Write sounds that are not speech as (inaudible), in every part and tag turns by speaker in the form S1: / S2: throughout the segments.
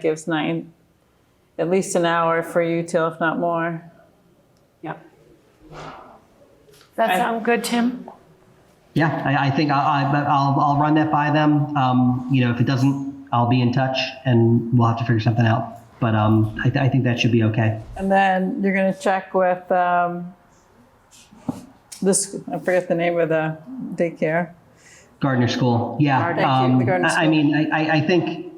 S1: gives nine, at least an hour for you till, if not more.
S2: Yep. That
S1: I-
S2: sound good, Tim?
S3: Yeah, I, I think I, I, but I'll, I'll run that by them. Um, you know, if it doesn't, I'll be in touch and we'll have to figure something out. But um, I, th- I think that should be okay.
S1: And then you're gonna check with, um, this, I forget the name of the daycare.
S3: Gardner School, yeah. um,
S1: Gardner. Thank you, the Gardner
S3: I, I
S1: School.
S3: mean, I, I, I think.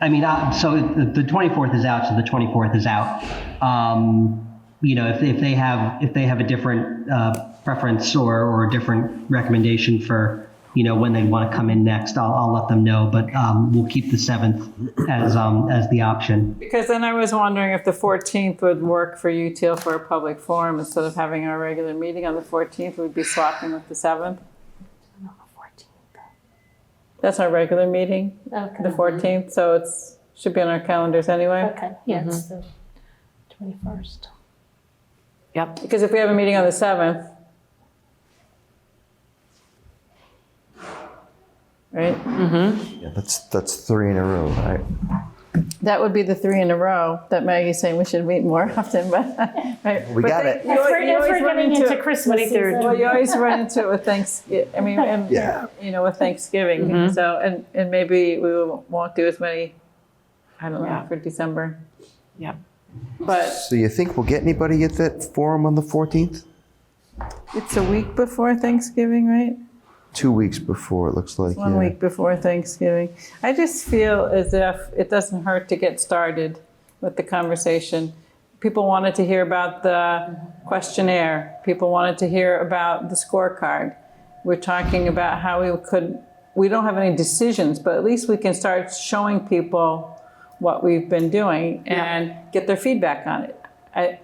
S3: I mean, uh, so the, the 24th is out, so the 24th is out. Um, you know, if, if they have if they have a different uh, preference or, or a different recommendation for you know when they want to come in next, I'll, I'll let them know. But um, we'll keep the 7th as um, as the option.
S1: Because then I was wondering if the fourteenth would work for you till for a public forum, instead of having our regular meeting on the fourteenth, we'd be swapping with the seventh. That's our regular meeting, the
S4: Okay,
S1: fourteenth, so it's, should be on our calendars anyway.
S4: okay, yeah, it's the twenty-first.
S2: Yep.
S1: Because if we have a meeting on the seventh. Right,
S5: Yeah, that's that's three in a row, right?
S1: that would be the three in a row that Maggie's saying we should meet more often, (laughs) but. right.
S5: We
S1: But
S5: got
S1: they-
S5: it.
S1: you al- you always run it-
S4: Christmas
S1: Well, you always run into it with Thanksgiving, I mean, and,
S5: Yeah.
S1: you know, with Thanksgiving, so, and, and maybe we will- won't do as many, I don't know,
S2: Yeah.
S1: for December.
S2: Yep.
S1: But
S5: So you think we'll get anybody at that forum on the 14th?
S1: it's a week before Thanksgiving, right?
S5: Two weeks before it looks like.
S1: One
S5: yeah.
S1: week before Thanksgiving. I just feel as if it doesn't hurt to get started with the conversation. People wanted to hear about the questionnaire. People wanted to hear about the scorecard. We're talking about how we could, we don't have any decisions, but at least we can start showing people what we've been doing and get their feedback on it. I,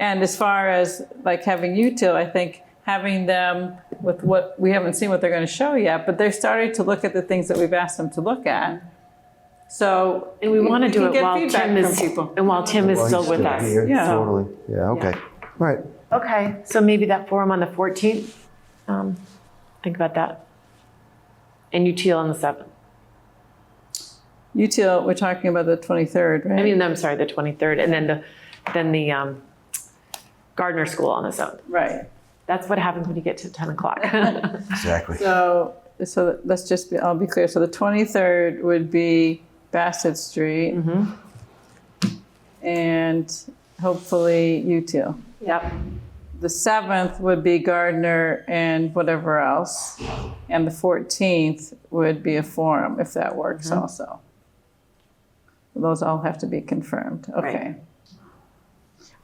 S1: and as far as like having you two, I think having them with what we haven't seen what they're going to show yet, but they're starting to look at the things that we've asked them to look at. So
S2: And we want to do
S1: can
S2: it
S1: get
S2: while
S1: feedback
S2: Tim is,
S1: from people.
S2: and while Tim is
S5: Well,
S2: still
S5: he's
S2: with us.
S5: here,
S1: Yeah.
S5: Totally. Yeah. Okay. All right.
S2: Okay, so maybe that forum on the 14th, um, think about that. And UTL on the 7th.
S1: You two, we're talking about the 23rd, right?
S2: I mean, I'm sorry, the 23rd, and then the, then the um, Gardner School on the 7th.
S1: right.
S2: That's what happens when you get to 10 o'clock. (laughs)
S5: Exactly.
S1: So so let's just be, I'll be clear. So the 23rd would be Bassett Street.
S2: Mm-hmm.
S1: And hopefully you two.
S2: Yep.
S1: The seventh would be Gardner and whatever else, and the fourteenth would be a forum, if that works
S2: Mm-hmm.
S1: also. Those all have to be confirmed, okay.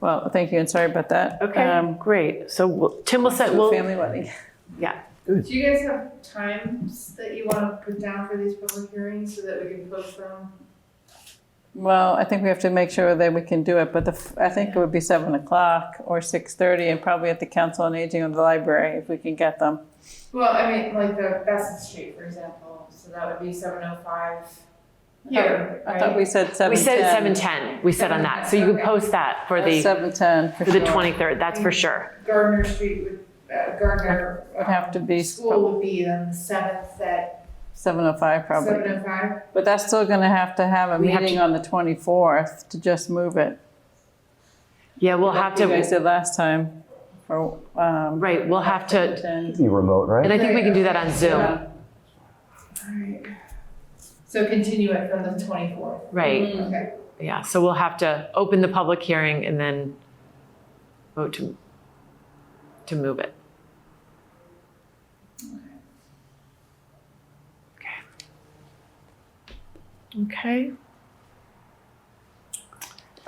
S1: Well, thank you, and sorry about that.
S2: Okay,
S1: Um,
S2: great. So we'll- Tim will set, we'll,
S1: Family wedding.
S2: yeah,
S6: Do you guys have times that you want to put down for these public hearings so that we can post them?
S1: Well, I think we have to make sure that we can do it, but the, f- I think it would be seven o'clock or six thirty, and probably at the council on aging or the library, if we can get them.
S6: Well, I mean, like the Bassett Street, for example, so that would be seven oh five here,
S1: I thought we
S6: right?
S1: said seven
S2: we
S1: ten.
S2: said 7:10, we said on that. So you could post that for the,
S1: Seven ten, for
S2: for the
S1: sure.
S2: 23rd, that's for sure.
S6: Gardner Street would, uh, Gardner.
S1: Would have to be-
S6: School would be on the seventh at
S1: Seven oh five probably.
S6: seven oh five.
S1: But that's still gonna have to have a
S2: We have
S1: meeting
S2: to-
S1: on the twenty-fourth to just move it.
S2: Yeah, we'll have
S1: Like you guys
S2: to,
S1: did last time, or, um,
S2: right, we'll have to,
S1: attend.
S5: Be remote, right?
S2: and I think we can do that on Zoom,
S1: Yeah.
S6: Alright. So continue it from the twenty-fourth,
S2: right?
S1: Mm.
S6: okay?
S1: Mm-hmm.
S2: Yeah, so we'll have to open the public hearing and then vote to, to move it. Okay. Okay.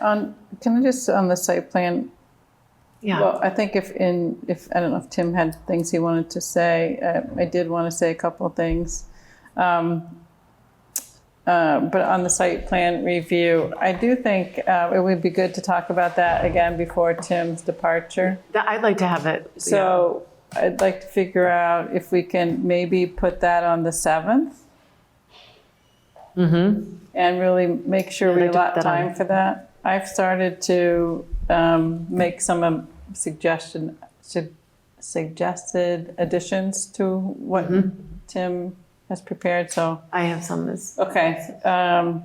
S1: On, can I just, on the site plan,
S2: Yeah,
S1: well, I think if in, if, I don't know if Tim had things he wanted to say, uh, I did wanna say a couple of things. Um, uh, but on the site plan review, I do think, uh, it would be good to talk about that again before Tim's departure.
S2: That- I'd like to have it. yeah.
S1: So I'd like to figure out if we can maybe put that on the 7th
S2: Mhm.
S1: and really make sure
S2: Yeah,
S1: we
S2: they took
S1: allot
S2: that on.
S1: time for that. I've started to um, make some um,
S2: Mm-hmm.
S1: suggestion, su- suggested additions to what Tim as prepared, so,
S2: I have some that's
S1: okay. um,